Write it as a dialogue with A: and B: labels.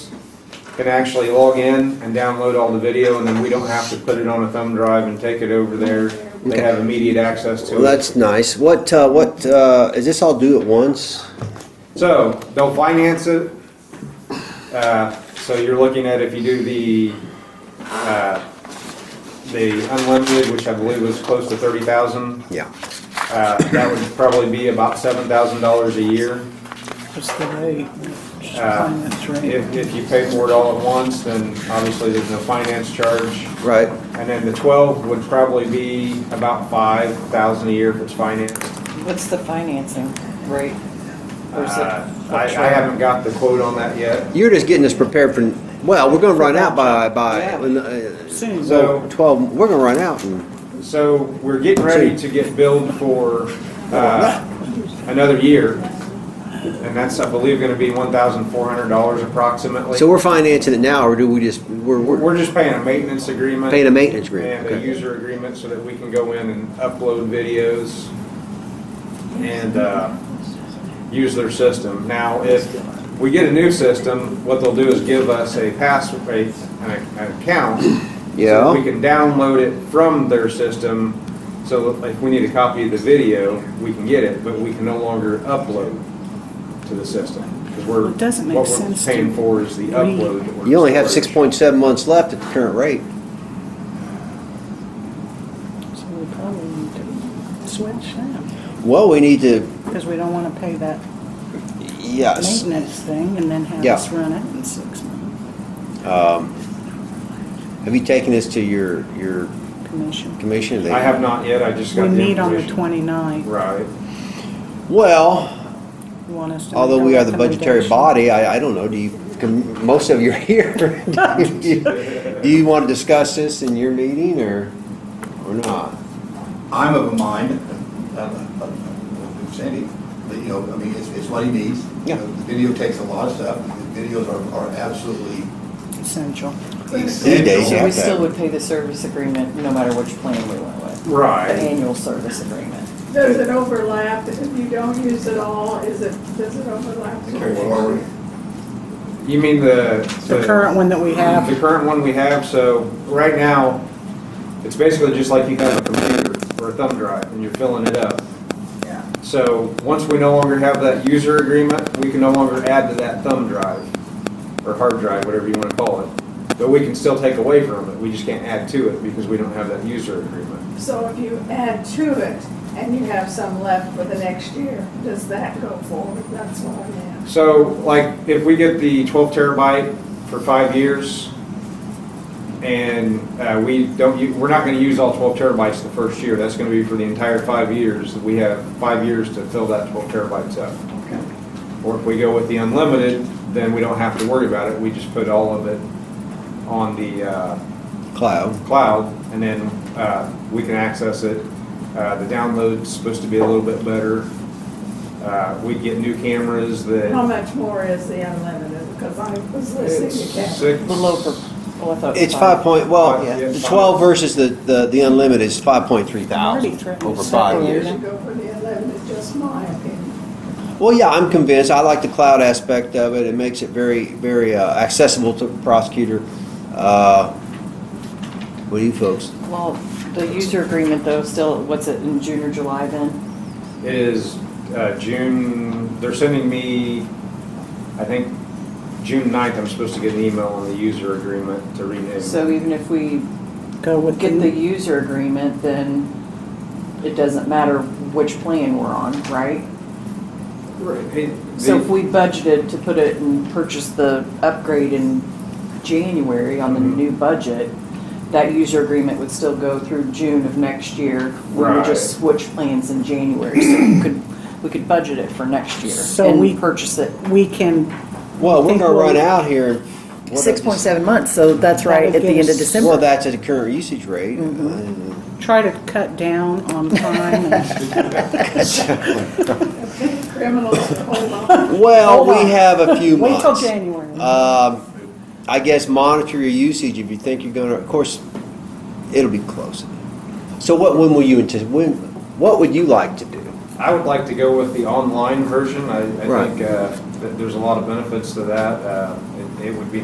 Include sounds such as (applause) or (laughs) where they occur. A: can actually log in and download all the video, and then we don't have to put it on a thumb drive and take it over there. They
B: Okay.
A: have immediate access
B: Well,
A: to it.
B: that's nice. What, uh, what, uh, is this all due at once?
A: So they'll finance it. Uh, So you're looking at if you do the, uh, the unlimited, which I believe was close to thirty thousand,
B: Yeah.
A: uh, that would probably be about seven thousand dollars a year.
C: What's the rate? Just
A: Uh,
C: finance rate.
A: If, if you pay for it all at once, then obviously there's no finance charge.
B: Right.
A: And then the twelve would probably be about five thousand a year if it's financed.
D: What's the financing rate? Or is it
A: Uh, I, I haven't got the quote on that yet.
B: You're just getting us prepared for, well, we're gonna run out by, by,
D: Yeah.
B: uh,
C: Soon.
A: So,
B: twelve, we're gonna run out and,
A: so we're getting ready to get billed for, uh, another year. And that's, I believe, gonna be one thousand four hundred dollars approximately.
B: so we're financing it now, or do we just, we're, we're
A: We're just paying a maintenance agreement.
B: paying a maintenance agreement?
A: and a
B: Okay.
A: user agreement so that we can go in and upload videos and uh, use their system. Now, if we get a new system, what they'll do is give us a password, an account. so that
B: Yeah.
A: We can download it from their system, so that if we need a copy of the video, we can get it, but we can no longer upload to the system. Because we're,
C: It doesn't make
A: what we're
C: sense to
A: paying for is the
C: me.
A: upload. that we're
B: You only have six
A: storing.
B: point seven months left at the current rate.
C: So we probably need to switch now,
B: Well, we need to,
C: because we don't want to pay that
B: yes,
C: maintenance thing and then have
B: Uh, Yeah.
C: us run out in six months.
B: um, have you taken this to your, your
C: Commission.
B: commission? They-
A: I have not yet, I just
C: We
A: got the
C: meet on the
A: information.
C: 29th. (laughs)
A: Right.
B: Well,
C: You want us to. make
B: Although
C: a
B: we are the budgetary
C: recommendation?
B: body, I, I don't know, do you, can- most of you are here. (laughs) Do you- Do you want to discuss this in your meeting or, or not?
E: I'm of a mind, uh, uh, uh, Sandy, that, you know, I mean, it's, it's what he needs. You
B: Yeah.
E: know, The video takes a lot of stuff, the videos are, are absolutely
C: Essential.
B: These days,
E: essential.
B: yeah.
D: So we still would pay the service agreement no matter which plan we went with? The
A: Right.
D: annual service agreement?
F: Does it overlap? If you don't use it all, is it, does it overlap?
E: To carry forward.
A: You mean the
C: The current one that we have,
A: The current one we have. So right now, it's basically just like you have a computer or a thumb drive, and you're filling it up.
F: Yeah.
A: So once we no longer have that user agreement, we can no longer add to that thumb drive or hard drive, whatever you want to call it. But we can still take away from it. We just can't add to it because we don't have that user agreement.
F: So if you add to it and you have some left for the next year, does that go forward? That's what I'm asking.
A: So like if we get the 12 terabyte for five years, and uh, we don't, u- we're not going to use all 12 terabytes the first year. That's going to be for the entire five years. We have five years to fill that 12 terabytes up. Or if we go with the unlimited, then we don't have to worry about it. We just put all of it on the uh,
B: Cloud,
A: cloud, and then uh, we can access it. Uh, The download's supposed to be a little bit better. Uh, We get new cameras that.
F: How much more is the unlimited? Because I was listening to
A: It's
F: Kathy.
A: six-
D: The low, per- well, I thought. it
B: it's
D: was
B: five point, well,
A: Five, yeah,
B: the
A: five.
B: twelve versus the, the, the unlimited is five point three
C: Already
B: thousand
C: threatened
B: over
C: to
B: five
C: separate
B: years.
F: You should go for the unlimited, just my opinion. (laughs)
B: Well, yeah, I'm convinced. I like the cloud aspect of it. It makes it very, very uh, accessible to the prosecutor. Uh, What do you folks?
D: Well, the user agreement though, still, what's it, in June or July then?
A: It is uh, June, they're sending me, I think, June 9th, I'm supposed to get an email on the user agreement to renew.
D: So even if we
C: go with
D: get
C: the,
D: the user agreement, then it doesn't matter which plan we're on, right?
A: Right, it-
D: So
A: the-
D: if we budgeted to put it and purchase the upgrade in January on the
A: Mhm.
D: new budget, that user agreement would still go through June of next year. We would just switch plans in January, so we could, we could budget it for next year
C: So we-
D: and purchase it.
C: we can,
B: Well, we're
C: Think
B: gonna
C: we'll-
B: run out here. What if-
G: Six point seven months, so that's right, at the end
B: Well,
G: of December.
B: that's at the current usage rate. (laughs)
C: Mm-hmm. try to cut down on time and
F: Criminals hold on.
B: Well,
C: Hold on.
B: we have a few
C: wait
B: months.
C: till January.
B: Um, I guess monitor your usage if you think you're gonna, of course, it'll be close. So what, when will you, antici- when, what would you like to do?
A: I would like to go with the online version. I I
B: Right.
A: think uh, that there's a lot of benefits to that. Uh, it- It would be